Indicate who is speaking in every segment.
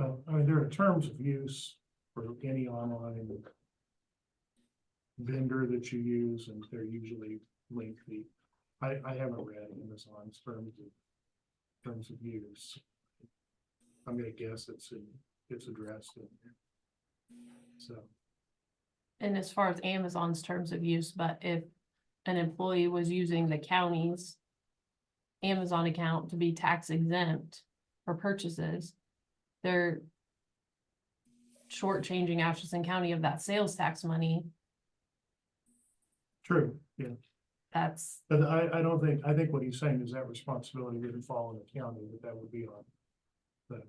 Speaker 1: and there are terms of use for any online vendor that you use, and they're usually lengthy. I, I haven't read Amazon's terms of, terms of use. I'm gonna guess it's, in- it's addressed in there. So,
Speaker 2: And as far as Amazon's terms of use, but if an employee was using the county's Amazon account to be tax exempt for purchases, they're shortchanging Atchison County of that sales tax money.
Speaker 1: true, yeah,
Speaker 2: That's,
Speaker 1: but I, I don't think, I think what he's saying is that responsibility didn't fall on the county, that that would be on the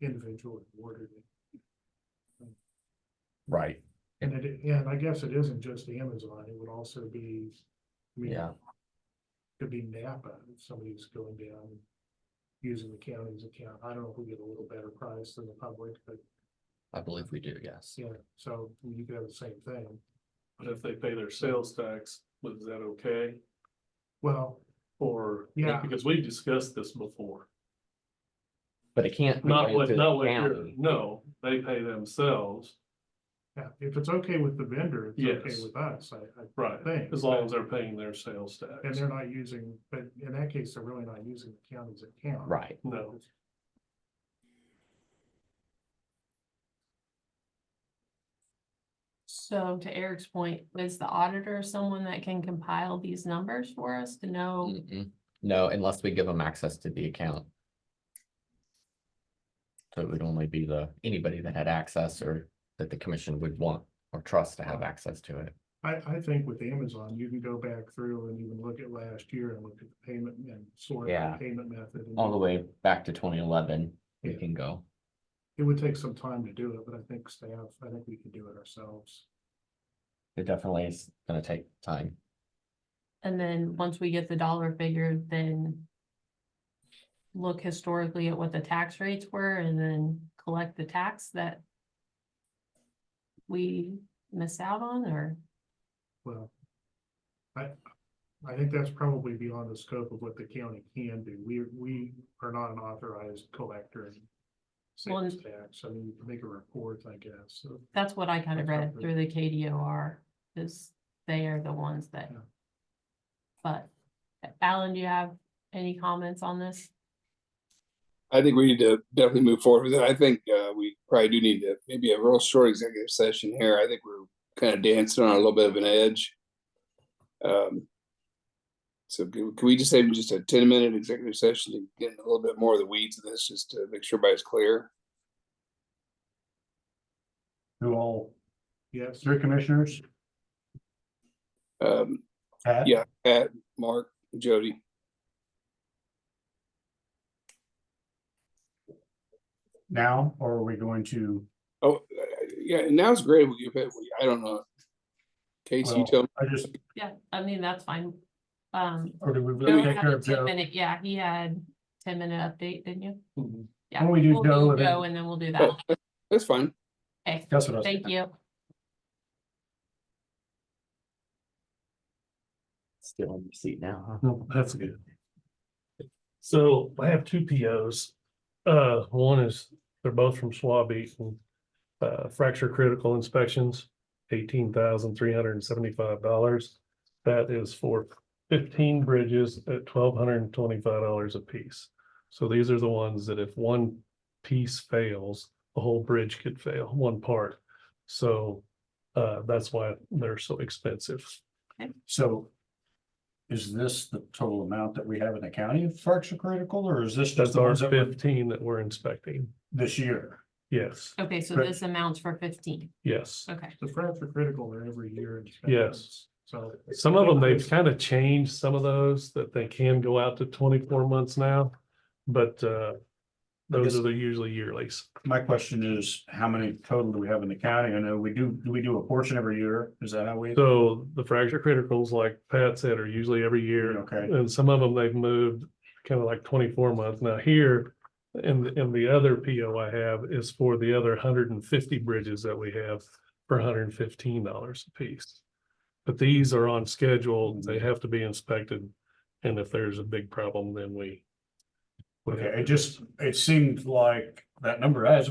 Speaker 1: individual who ordered it.
Speaker 3: Right,
Speaker 1: And it, and I guess it isn't just Amazon, it would also be, I mean,
Speaker 3: yeah,
Speaker 1: could be Napa, if somebody's going down and using the county's account. I don't know if we get a little better price than the public, but
Speaker 3: I believe we do, yes.
Speaker 1: yeah, so you could have the same thing.
Speaker 4: But if they pay their sales tax, was that okay?
Speaker 1: Well,
Speaker 4: Or,
Speaker 1: Yeah.
Speaker 4: because we've discussed this before,
Speaker 3: But it can't. be
Speaker 4: not
Speaker 3: going
Speaker 4: what,
Speaker 3: to the
Speaker 4: not what, you're-
Speaker 3: county.
Speaker 4: no, they pay themselves,
Speaker 1: yeah, if it's okay with the vendor, it's okay
Speaker 4: Yes.
Speaker 1: with us, I, I
Speaker 4: right?
Speaker 1: Thanks.
Speaker 4: As long as they're paying their sales
Speaker 1: And
Speaker 4: tax,
Speaker 1: they're not using, but in that case, they're really not using the county's account.
Speaker 3: Right,
Speaker 4: no,
Speaker 2: so to Eric's point, is the auditor someone that can compile these numbers for us to know?
Speaker 3: Mm-mm. no, unless we give them access to the account. So it would only be the, anybody that had access or that the commission would want or trust to have access to it.
Speaker 1: I, I think with Amazon, you can go back through and even look at last year and look at the payment and sort
Speaker 3: Yeah.
Speaker 1: the payment method. and
Speaker 3: All the way back to twenty eleven, we
Speaker 1: Yeah.
Speaker 3: can go.
Speaker 1: It would take some time to do it, but I think staff, I think we could do it ourselves.
Speaker 3: It definitely is gonna take time.
Speaker 2: And then once we get the dollar figure, then look historically at what the tax rates were and then collect the tax that we missed out on or,
Speaker 1: Well, I, I think that's probably beyond the scope of what the county can do. We, we are not an authorized collector. in
Speaker 2: Well, and-
Speaker 1: Sales tax, I mean, you can make a report, I guess, so.
Speaker 2: that's what I kind of
Speaker 1: That's
Speaker 2: read
Speaker 1: something.
Speaker 2: through the KDOR, is they are the ones that.
Speaker 1: Yeah.
Speaker 2: But Alan, do you have any comments on this?
Speaker 5: I think we need to definitely move forward with it. I think uh, we probably do need to maybe a real short executive session here. I think we're kind of dancing on a little bit of an edge. Um, so can can we just have just a ten minute executive session to get in a little bit more of the weeds of this, just to make sure everybody's clear?
Speaker 6: to all
Speaker 1: Yes,
Speaker 6: three commissioners.
Speaker 5: Um,
Speaker 6: Pat?
Speaker 5: yeah, Pat, Mark, Jody.
Speaker 6: Now, or are we going to,
Speaker 5: Oh, uh, yeah. Now's great. We, we- I don't know. Casey, you
Speaker 6: Well,
Speaker 5: tell me.
Speaker 6: I just,
Speaker 2: Yeah, I mean, that's fine. Um,
Speaker 6: or do we
Speaker 2: Joe
Speaker 6: really take
Speaker 2: had
Speaker 6: care
Speaker 2: a
Speaker 6: of
Speaker 2: 10
Speaker 6: Joe?
Speaker 2: minute- Yeah, he had ten minute update, didn't you?
Speaker 4: Mhm.
Speaker 2: Yeah,
Speaker 6: Why don't we do
Speaker 2: we'll
Speaker 6: Joe and then- Oh,
Speaker 2: Joe and then we'll do that.
Speaker 5: That's fine.
Speaker 2: Okay,
Speaker 6: That's what I was.
Speaker 2: thank you.
Speaker 3: Still in your seat now, huh?
Speaker 4: Well, Oh, that's good. So I have two POs. Uh, one is, they're both from Schwab Eaton. Uh, fracture critical inspections, eighteen thousand three hundred and seventy-five dollars. That is for fifteen bridges at twelve hundred and twenty-five dollars a piece. So these are the ones that if one piece fails, the whole bridge could fail, one part. So, uh, that's why they're so expensive.
Speaker 6: So is this the total amount that we have in the county of fracture critical, or is this just
Speaker 4: That's
Speaker 6: the
Speaker 4: our
Speaker 6: ones that were
Speaker 4: fifteen that we're inspecting.
Speaker 6: this year?
Speaker 4: Yes,
Speaker 2: Okay, so
Speaker 6: Correct.
Speaker 2: this amounts for fifteen,
Speaker 4: yes.
Speaker 2: okay.
Speaker 1: the frats are critical there every year. in
Speaker 4: Yes.
Speaker 1: So.
Speaker 4: Some of them, they've kind of changed some of those that they can go out to twenty-four months now, but uh. Those
Speaker 6: guess-
Speaker 4: are the usually yearlies.
Speaker 6: My question is, how many total do we have in the county? I know we do, do we do a portion every year? Is that how we?
Speaker 4: So the fracture criticals, like Pat said, are usually every year.
Speaker 6: Okay,
Speaker 4: And some of them they've moved kind of like twenty-four months. Now here, and, and the other PO I have is for the other hundred and fifty bridges that we have for hundred and fifteen dollars a piece. But these are on schedule. They have to be inspected. And if there's a big problem, then we. we have
Speaker 6: okay,
Speaker 4: to-
Speaker 6: it just, it seemed like that number has